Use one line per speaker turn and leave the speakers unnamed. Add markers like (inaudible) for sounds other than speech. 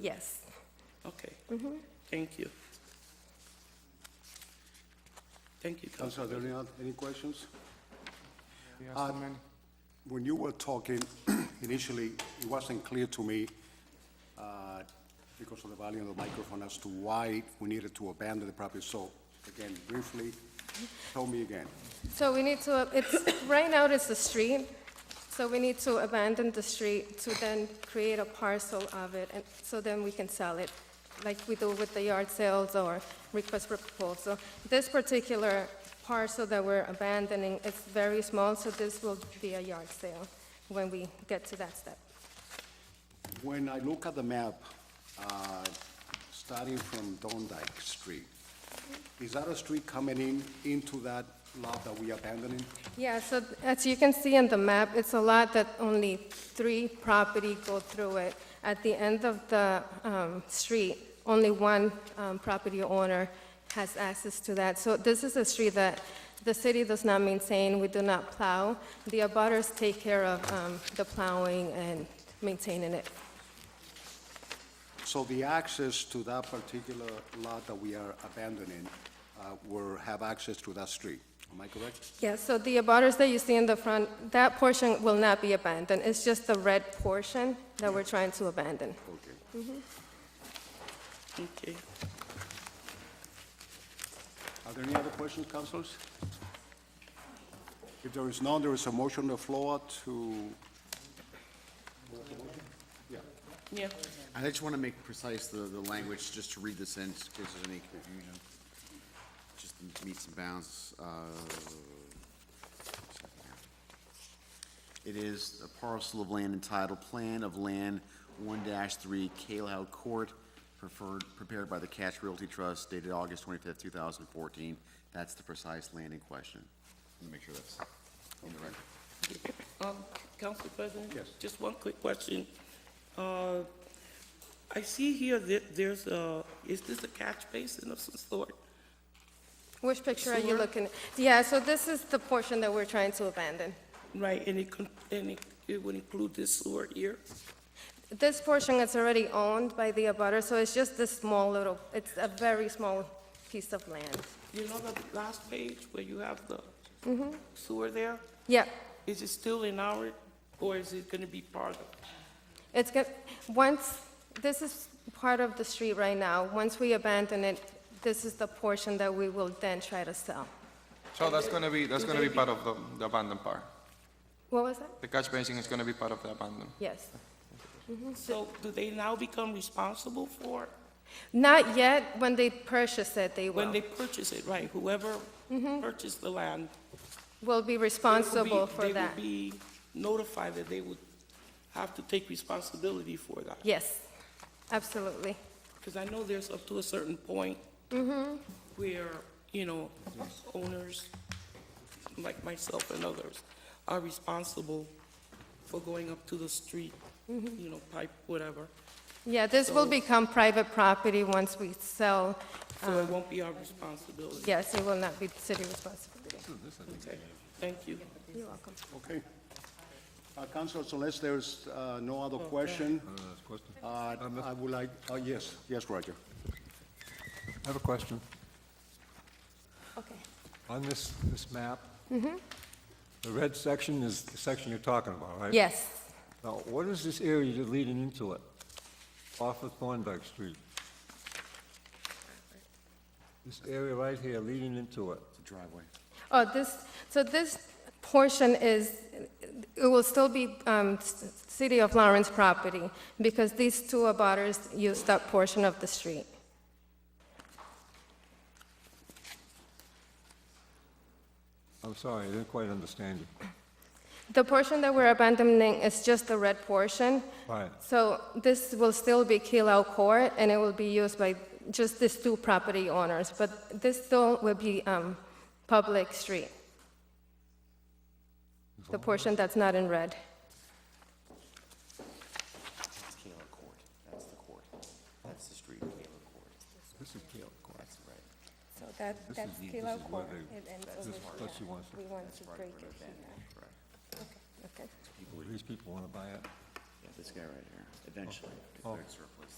Yes.
Okay. Thank you. Thank you, Council.
Councilor, are there any, oth- any questions? Uh,
You have so many.
When you were talking (clears throat) initially, it wasn't clear to me, uh, because of the volume of the microphone, as to why we needed to abandon the property. So again, briefly, tell me again.
So we need to, it's, right now it's a street, so we need to abandon the street to then create a parcel of it, and so then we can sell it, like we do with the yard sales or request for proposal. This particular parcel that we're abandoning, it's very small, so this will be a yard sale when we get to that step.
When I look at the map, uh, starting from Thorndike Street, is that a street coming in, into that lot that we abandoning?
Yeah, so th- as you can see in the map, it's a lot that only three property go through it. At the end of the um, street, only one um, property owner has access to that. So this is a street that the city does not maintain, we do not plow. The abutters take care of um, the plowing and maintaining it.
So the access to that particular lot that we are abandoning uh, will have access to that street, am I correct?
Yeah, so the abutters that you see in the front, that portion will not be abandoned. It's just the red portion that we're trying to abandon.
Okay.
Okay.
Are there any other questions, councilors? If there is none, there is a motion on the floor to,
Yeah.
I just want to make precise the, the language, just to read this in, in case there's any confusion. Just the meets and bounds, uh, it is a parcel of land entitled Plan of Land one three Calow Court, preferred, prepared by the Cash Realty Trust dated August twenty-fifth, two thousand fourteen. That's the precise land in question. Let me make sure that's on the record.
Um, Council President?
Yes.
Just one quick question. Uh, I see here that there's a, is this a catch basin of some sort?
Which picture are you
Sewer?
looking? at? Yeah, so this is the portion that we're trying to abandon.
Right, and it, con- and it- it would include this sewer here?
This portion is already owned by the abutter, so it's just this small little, it's a very small piece of land.
You know the last page where you have the sewer there?
Yeah,
Is it still in our, or is it gonna be part of?
it's going, once, this is part of the street right now. Once we abandon it, this is the portion that we will then try to sell.
So that's gonna be, that's gonna be part of the, the abandoned part.
What was that?
The catch basin is gonna be part of the abandoned.
Yes.
So do they now become responsible for,
Not yet, when they purchase it, they
when
will,
they purchase it, right? Whoever purchased the land.
will be
they will be-
Mm-hmm. responsible for that.
They will be notified that they would have to take responsibility for that.
Yes, absolutely.
Because I know there's up to a certain point
Mm-hmm.
where, you know, owners, like myself and others, are responsible for going up to the street,
Mm-hmm.
you know, pipe, whatever.
Yeah, this will
So-
become private property once we sell.
So
Uh-huh.
it won't be our responsibility.
Yes, it will not be city responsibility.
Okay, thank you.
You're welcome.
okay. Uh, Councilors, unless there's uh, no other question, uh, I would like, oh, yes, yes, Roger.
I have a question.
Okay.
On this, this map, the red section is the section you're talking about, right?
Yes.
Now, what is this area you're leading into it, off of Thorndike Street? This area right here leading into it.
It's a driveway.
Oh, this, so this portion is, it will still be um, s- City of Lawrence property because these two abutters used that portion of the street.
I'm sorry, I didn't quite understand you.
The portion that we're abandoning is just the red portion.
Right.
So this will still be Kilau Court, and it will be used by just these two property owners, but this still will be um, public street. The portion that's not in red.
It's Kayla Court, that's the court, that's the street, Kayla Court.
This is Gale Court.
That's right.
So that,
This is- that's this Kilo is where Court. they- It ends this is over what here. she wants. We
want to break it Okay.
These people want to buy it. Oh.
Yeah, this guy right here, eventually, declared surplus.